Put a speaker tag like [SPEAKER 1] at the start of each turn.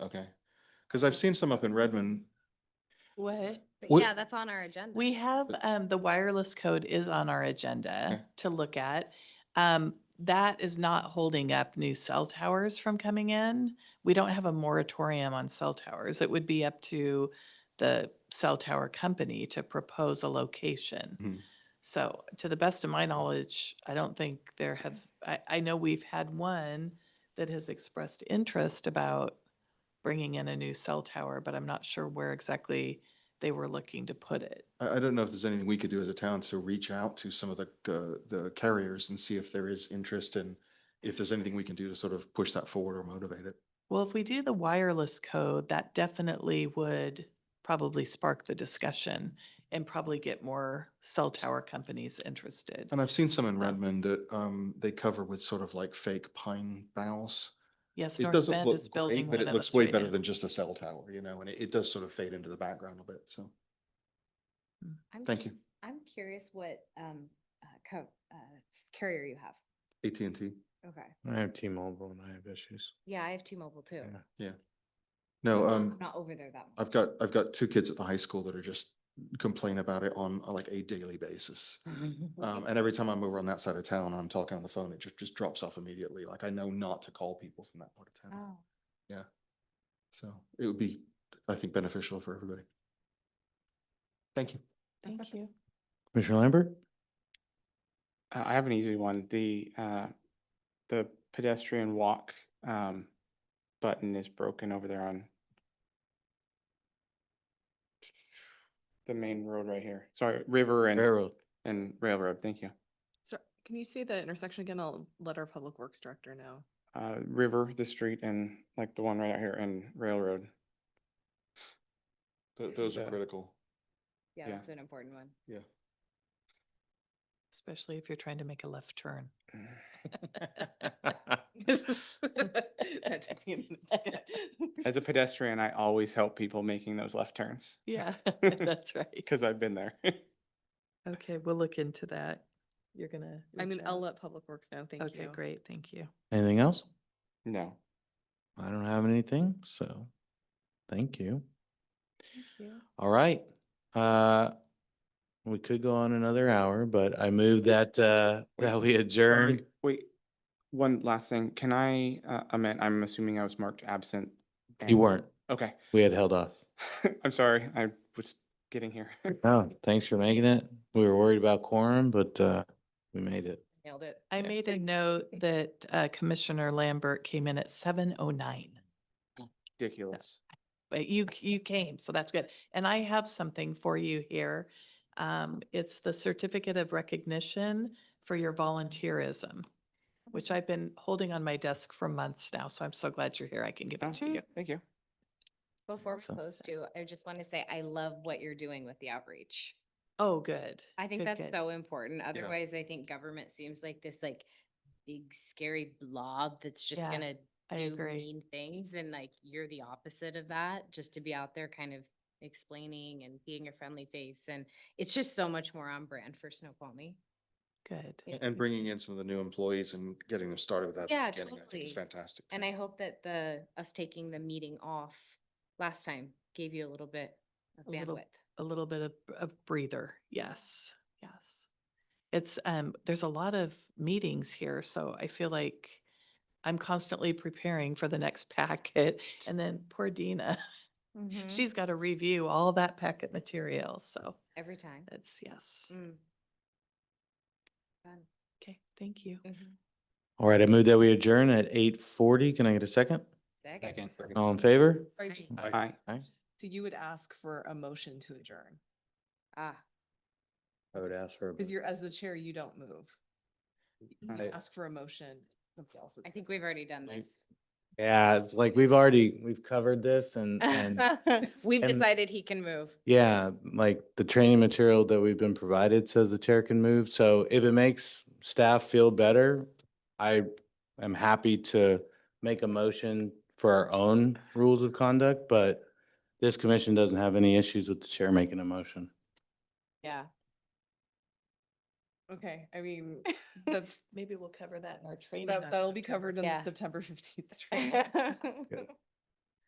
[SPEAKER 1] Okay. Cause I've seen some up in Redmond.
[SPEAKER 2] What?
[SPEAKER 3] But
[SPEAKER 1] We-
[SPEAKER 3] yeah, that's on our agenda.
[SPEAKER 2] We have,
[SPEAKER 1] But-
[SPEAKER 2] um, the wireless code is on our
[SPEAKER 1] Okay.
[SPEAKER 2] agenda to look at. Um, that is not holding up new cell towers from coming in. We don't have a moratorium on cell towers. It would be up to the cell tower company to propose a
[SPEAKER 1] Mhm.
[SPEAKER 2] location. So to the best of my knowledge, I don't think there have, I, I know we've had one that has expressed interest about bringing in a new cell tower, but I'm not sure where exactly they were looking to put it.
[SPEAKER 1] I, I don't know if there's anything we could do as a town to reach out to some of the, uh, the carriers and see if there is interest and if there's anything we can do to sort of push that forward or motivate it.
[SPEAKER 2] Well, if we do the wireless code, that definitely would probably spark the discussion and probably get more cell tower companies interested.
[SPEAKER 1] And I've seen some in Redmond that, um, they cover with sort of like fake pine boughs.
[SPEAKER 2] Yes,
[SPEAKER 1] It
[SPEAKER 2] North
[SPEAKER 1] doesn't
[SPEAKER 2] Bend is
[SPEAKER 1] look
[SPEAKER 2] building
[SPEAKER 1] great, but
[SPEAKER 2] one
[SPEAKER 1] it
[SPEAKER 2] of
[SPEAKER 1] looks
[SPEAKER 2] those
[SPEAKER 1] way
[SPEAKER 2] right
[SPEAKER 1] better
[SPEAKER 2] now.
[SPEAKER 1] than just a cell tower, you know, and it, it does sort of fade into the background a bit. So,
[SPEAKER 3] I'm
[SPEAKER 1] thank
[SPEAKER 3] cu-
[SPEAKER 1] you.
[SPEAKER 3] I'm curious what, um, uh, co- uh, s- carrier you have.
[SPEAKER 1] AT&T.
[SPEAKER 3] Okay.
[SPEAKER 4] I have T-Mobile and I have issues.
[SPEAKER 3] Yeah, I have T-Mobile too.
[SPEAKER 4] Yeah.
[SPEAKER 1] No,
[SPEAKER 3] Well,
[SPEAKER 1] um,
[SPEAKER 3] I'm Not over there that much.
[SPEAKER 1] I've got, I've got two kids at the high school that are just complain about it on uh, like a daily basis.
[SPEAKER 3] Oh,
[SPEAKER 1] Um, and every time I'm over on that side of town, and I'm talking on the phone, it just, just drops off immediately. Like I know not to call people from that part of town.
[SPEAKER 3] Oh,
[SPEAKER 1] So it would be, I think, beneficial for everybody. Thank you.
[SPEAKER 2] Thank you.
[SPEAKER 4] Commissioner Lambert?
[SPEAKER 5] Uh, I have an easy one. The, uh, the pedestrian walk, um, button is broken over there on the main road right here. Sorry, River and, and Railroad. Thank you.
[SPEAKER 6] So can you say the intersection again? I'll let our public works director know.
[SPEAKER 5] Uh, River, the street and like the one right out here and Railroad.
[SPEAKER 1] Th- Those are
[SPEAKER 5] Yeah.
[SPEAKER 1] critical.
[SPEAKER 3] yeah,
[SPEAKER 5] Yeah.
[SPEAKER 3] that's an important one.
[SPEAKER 2] Especially if you're trying to make a left turn.
[SPEAKER 6] That took me a minute.
[SPEAKER 5] As a pedestrian, I always help people making those left turns
[SPEAKER 2] Yeah, that's right.
[SPEAKER 5] because I've been there.
[SPEAKER 2] Okay, we'll look into that. You're gonna.
[SPEAKER 6] I mean,
[SPEAKER 2] reach
[SPEAKER 6] I'll
[SPEAKER 2] out?
[SPEAKER 6] let public works know. Thank you.
[SPEAKER 2] Okay, great, thank you.
[SPEAKER 4] Anything else?
[SPEAKER 5] No.
[SPEAKER 4] I don't have anything, so thank you.
[SPEAKER 2] Thank you.
[SPEAKER 4] All right. Uh, we could go on another hour, but I move that, uh, that we adjourn.
[SPEAKER 5] Wait, one last thing. Can I, uh, amend, I'm assuming I was marked absent.
[SPEAKER 4] You
[SPEAKER 5] and-
[SPEAKER 4] weren't.
[SPEAKER 5] Okay.
[SPEAKER 4] We had held off.
[SPEAKER 5] I'm sorry, I was getting here.
[SPEAKER 4] Oh, thanks for making it. We were worried about quorum, but, uh, we made it.
[SPEAKER 3] Nailed it.
[SPEAKER 2] I made a note that uh, Commissioner Lambert came in at seven oh nine.
[SPEAKER 5] Ridiculous.
[SPEAKER 2] but you c- you came, so that's good. And I have something for you here. Um, it's the certificate of recognition for your volunteerism, which I've been holding on my desk for months now. So I'm so glad you're here. I can give
[SPEAKER 5] Oh,
[SPEAKER 2] it to you.
[SPEAKER 3] Uh-huh.
[SPEAKER 5] yeah, Thank you.
[SPEAKER 3] Before we
[SPEAKER 4] So-
[SPEAKER 3] close too, I just want to say I love what you're doing with the outreach.
[SPEAKER 2] Oh, good.
[SPEAKER 3] I think
[SPEAKER 2] good,
[SPEAKER 3] that's
[SPEAKER 2] good.
[SPEAKER 3] so important. Otherwise, I think government seems like this like big scary blob that's just
[SPEAKER 2] Yeah,
[SPEAKER 3] gonna
[SPEAKER 2] I
[SPEAKER 3] do
[SPEAKER 2] agree.
[SPEAKER 3] mean things and like you're the opposite of that, just to be out there kind of explaining and being a friendly face. And it's just so much more on brand for Snoqualmie.
[SPEAKER 2] Good.
[SPEAKER 3] Yeah.
[SPEAKER 1] And bringing in some of the new employees and getting them started with that. at the
[SPEAKER 3] Yeah,
[SPEAKER 1] beginning, I think It's
[SPEAKER 3] totally.
[SPEAKER 1] fantastic.
[SPEAKER 3] And
[SPEAKER 1] too.
[SPEAKER 3] I hope that the, us taking the meeting off last time gave you a little bit of
[SPEAKER 2] A little-
[SPEAKER 3] bandwidth.
[SPEAKER 2] A little bit of a breather. Yes, yes. It's um, there's a lot of meetings here, so I feel like I'm constantly preparing for the next packet. And then poor Dina,
[SPEAKER 6] Mm-hmm.
[SPEAKER 2] she's got to review all that packet material. So
[SPEAKER 3] Every time.
[SPEAKER 2] That's yes.
[SPEAKER 3] Mm. Fun.
[SPEAKER 2] Okay, thank you.
[SPEAKER 3] Mhm.
[SPEAKER 4] All right, I move that we adjourn at eight forty. Can I get a second?
[SPEAKER 3] Second.
[SPEAKER 1] Second.
[SPEAKER 4] All in favor?
[SPEAKER 6] Sorry, just-
[SPEAKER 1] Aye.
[SPEAKER 5] Hi.
[SPEAKER 6] So you would ask for a motion to adjourn?
[SPEAKER 3] Ah,
[SPEAKER 4] I would ask for.
[SPEAKER 6] Because you're, as the chair, you don't move. You
[SPEAKER 5] I-
[SPEAKER 6] ask for a motion. somebody else would
[SPEAKER 3] I
[SPEAKER 6] say.
[SPEAKER 3] think we've already done
[SPEAKER 4] Right.
[SPEAKER 3] this.
[SPEAKER 4] Yeah, it's like we've already, we've covered this and, and
[SPEAKER 3] We've
[SPEAKER 4] and-
[SPEAKER 3] decided he can move.
[SPEAKER 4] yeah, like the training material that we've been provided says the chair can move. So if it makes staff feel better, I am happy to make a motion for our own rules of conduct, but this commission doesn't have any issues with the chair making a motion.
[SPEAKER 3] Yeah.
[SPEAKER 6] Okay, I mean, that's,
[SPEAKER 2] Maybe we'll cover that in our training.
[SPEAKER 6] that, that'll be covered in the
[SPEAKER 3] Yeah.
[SPEAKER 6] September fifteenth.
[SPEAKER 3] Good.